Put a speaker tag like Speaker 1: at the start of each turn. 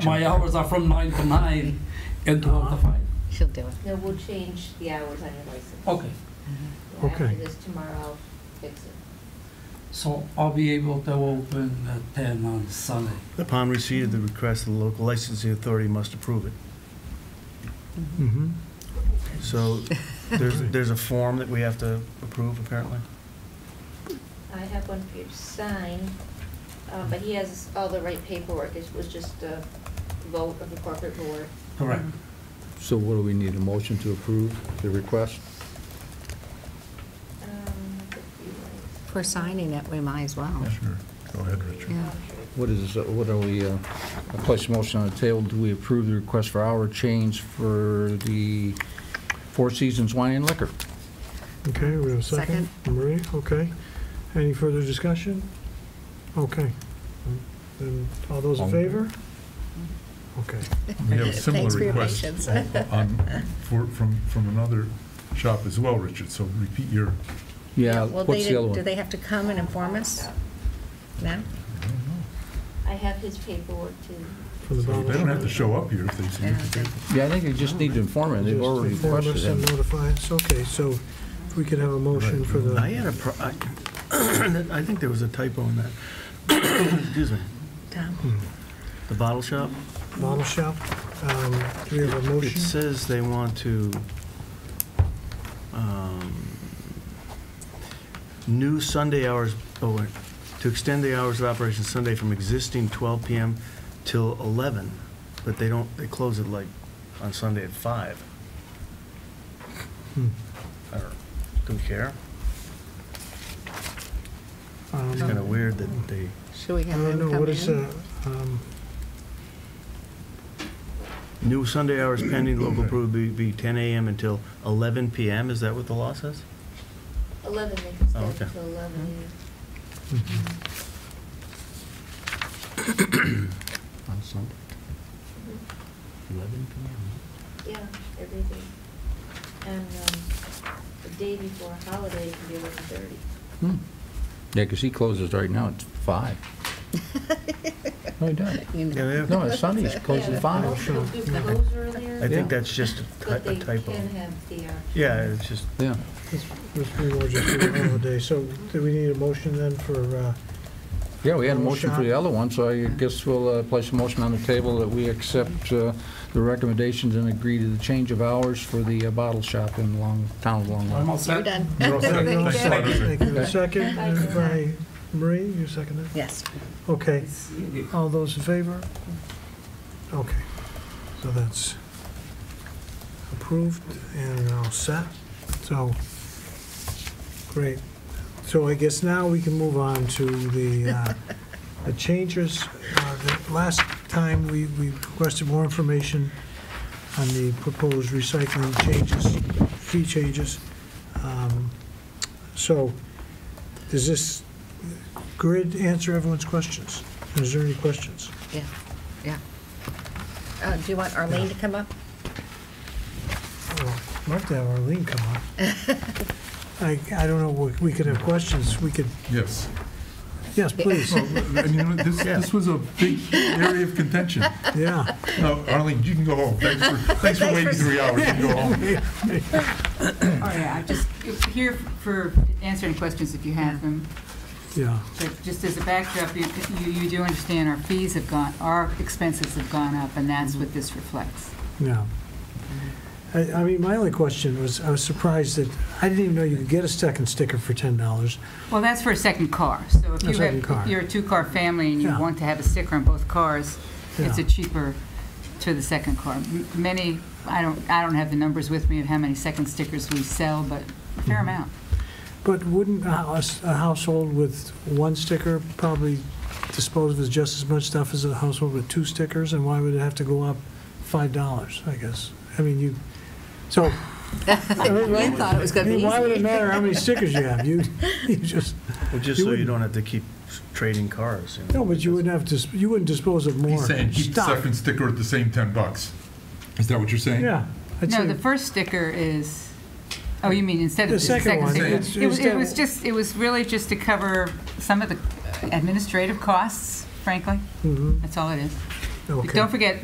Speaker 1: My hours are from nine to nine and twelve to five.
Speaker 2: She'll do it.
Speaker 3: No, we'll change the hours on your license.
Speaker 1: Okay,
Speaker 4: Oh,
Speaker 3: After
Speaker 5: Okay.
Speaker 3: this tomorrow, I'll fix it.
Speaker 1: so I'll be able to open at ten on Sunday.
Speaker 4: Upon receipt of the request, the local licensing authority must approve it.
Speaker 5: Mhm.
Speaker 4: So there's, there's a form that we have to approve, apparently.
Speaker 3: I have one for you to sign, uh, but he has all the right paperwork. It was just a vote of the corporate board.
Speaker 1: Correct.
Speaker 6: So what do we need, a motion to approve the request?
Speaker 3: Um, if you want-
Speaker 2: For signing it, we might as well.
Speaker 5: Sure. Go ahead, Richard.
Speaker 2: Yeah.
Speaker 6: What is, this? what are we, uh, I place a motion on the table, do we approve the request for hour change for the Four Seasons Wine and Liquor?
Speaker 5: Okay, we have a second? Marie, okay. Any further discussion? Okay. Then, all those in
Speaker 6: All-
Speaker 5: favor? Okay.
Speaker 7: We have a similar
Speaker 2: Thanks for your
Speaker 7: request
Speaker 2: patience.
Speaker 7: on, for, from, from another shop as well, Richard, so repeat your,
Speaker 6: Yeah,
Speaker 2: Well,
Speaker 6: what's
Speaker 2: they
Speaker 6: the other
Speaker 2: didn't- Do they
Speaker 6: one?
Speaker 2: have to come and inform us now?
Speaker 3: I have his paperwork too.
Speaker 5: For the
Speaker 7: they
Speaker 5: bottle
Speaker 7: don't have to
Speaker 5: shop.
Speaker 7: show up here if they submit the paper.
Speaker 6: Yeah, I think they just need to inform it, they've
Speaker 5: Just
Speaker 6: already
Speaker 5: inform us
Speaker 6: requested
Speaker 5: and
Speaker 6: it.
Speaker 5: Notify us, okay, so if we could have a motion for
Speaker 4: I
Speaker 5: the,
Speaker 4: had a, pro- I I think there was a typo in that. Excuse me.
Speaker 5: Hmm.
Speaker 2: Tom?
Speaker 4: The bottle shop?
Speaker 5: bottle shop. Um, Do we have a
Speaker 4: It
Speaker 5: motion?
Speaker 4: says they want to, um, new Sunday hours, oh, wait, to extend the hours of operation Sunday from existing 12 PM till 11, but they don't, they close it like on Sunday at 5.
Speaker 5: Hmm.
Speaker 4: I don't, don't care.
Speaker 5: Um,
Speaker 4: It's kind of weird that they,
Speaker 2: Should we
Speaker 5: I
Speaker 2: have them
Speaker 5: don't
Speaker 2: come in?
Speaker 5: know, what is that? Um,
Speaker 4: new Sunday hours pending local approval be- be 10 AM until 11 PM, is that what the law says?
Speaker 3: Eleven, they can
Speaker 4: Oh,
Speaker 3: start
Speaker 4: okay. Mm-hmm.
Speaker 3: until eleven.
Speaker 6: On Sunday.
Speaker 4: 11
Speaker 3: Yeah, everything. And um, the day before a holiday, it can be eleven thirty.
Speaker 6: Hmm. Yeah, because he closes right now at five. No, he doesn't.
Speaker 2: You know.
Speaker 4: Yeah, they have-
Speaker 6: No, it's Sunday, he closes
Speaker 3: Yeah,
Speaker 6: at five.
Speaker 3: most of them
Speaker 5: Sure.
Speaker 3: close earlier,
Speaker 4: I think
Speaker 6: Yeah.
Speaker 4: that's just a ty-
Speaker 3: But
Speaker 4: a
Speaker 3: they
Speaker 4: typo.
Speaker 3: can have the, uh,
Speaker 4: Yeah, it's just,
Speaker 6: Yeah.
Speaker 5: This this we were just doing all day, so do we need a motion then for, uh,
Speaker 6: Yeah, we had a
Speaker 5: Little
Speaker 6: motion for
Speaker 5: shot.
Speaker 6: the other one, so I guess we'll uh, place a motion on the table that we accept uh, the recommendations and agree to the change of hours for the uh, bottle shop in Long, town of Long
Speaker 1: I'm
Speaker 6: Island.
Speaker 1: all
Speaker 2: You're
Speaker 1: set.
Speaker 2: done.
Speaker 7: You're all set.
Speaker 5: No,
Speaker 7: Thanks,
Speaker 5: second,
Speaker 7: Roger.
Speaker 5: thank you. Second
Speaker 3: Bye.
Speaker 5: by Marie, you seconded?
Speaker 2: Yes.
Speaker 5: Okay, all those in favor? Okay, so that's approved and all set, so, great. So I guess now we can move on to the, uh, the changes. Uh, the Last time, we, we requested more information on the proposed recycling changes, fee changes. Um, So, does this grid answer everyone's questions? Is there any questions?
Speaker 2: Yeah, yeah. Uh, Do you want Arlene to come up?
Speaker 5: Well, I'd Love to Oh, have Arlene come up. I, I don't know, we- we could have questions, we could,
Speaker 7: Yes.
Speaker 5: yes, please,
Speaker 7: Well, I mean, this, this was a big area of contention.
Speaker 5: yeah.
Speaker 7: No, Arlene, you can go home. Thanks for, thanks for waiting three hours. You can go home.
Speaker 8: All right, I'm Oh, just here for answering questions if you have them,
Speaker 5: Yeah,
Speaker 8: but just as a backdrop, you, you you do understand our fees have gone, our expenses have gone up, and that's
Speaker 5: Mm-hmm.
Speaker 8: what this reflects.
Speaker 5: yeah. I, I mean, my only question was, I was surprised that, I didn't even know you could get a second sticker for $10.
Speaker 8: Well, that's for a second car, so if
Speaker 5: A
Speaker 8: you have,
Speaker 5: second car.
Speaker 8: if you're a two-car family and you
Speaker 5: Yeah.
Speaker 8: want to have a sticker on both cars, it's
Speaker 5: Yeah.
Speaker 8: a cheaper to the second car. M- Many, I don't, I don't have the numbers with me of how many second stickers we sell, but a
Speaker 5: Mm-hmm.
Speaker 8: fair amount.
Speaker 5: But wouldn't a house- a household with one sticker probably dispose of just as much stuff as a household with two stickers? And why would it have to go up $5, I guess? I mean, you, so.
Speaker 2: You thought it was going to be
Speaker 5: Why would it
Speaker 2: easy.
Speaker 5: matter how many stickers you have? You, you just,
Speaker 4: well, just so
Speaker 5: You
Speaker 4: you
Speaker 5: wouldn't-
Speaker 4: don't have to keep trading cars. you know.
Speaker 5: no, but you wouldn't have, dis- you wouldn't dispose of more
Speaker 7: He's saying keep the
Speaker 5: stuff.
Speaker 7: second sticker at the same 10 bucks. Is that what you're saying?
Speaker 5: Yeah. I'd
Speaker 8: No,
Speaker 5: say-
Speaker 8: the first sticker is, oh, you mean instead of
Speaker 5: The
Speaker 8: the
Speaker 5: second
Speaker 8: second
Speaker 5: one,
Speaker 8: sticker?
Speaker 5: it's-
Speaker 8: It was-
Speaker 5: instead
Speaker 8: It
Speaker 5: of-
Speaker 8: was just, it was really just to cover some of the administrative costs, frankly.
Speaker 5: Mhm.
Speaker 8: That's all it is. But
Speaker 5: Okay.
Speaker 8: Don't forget,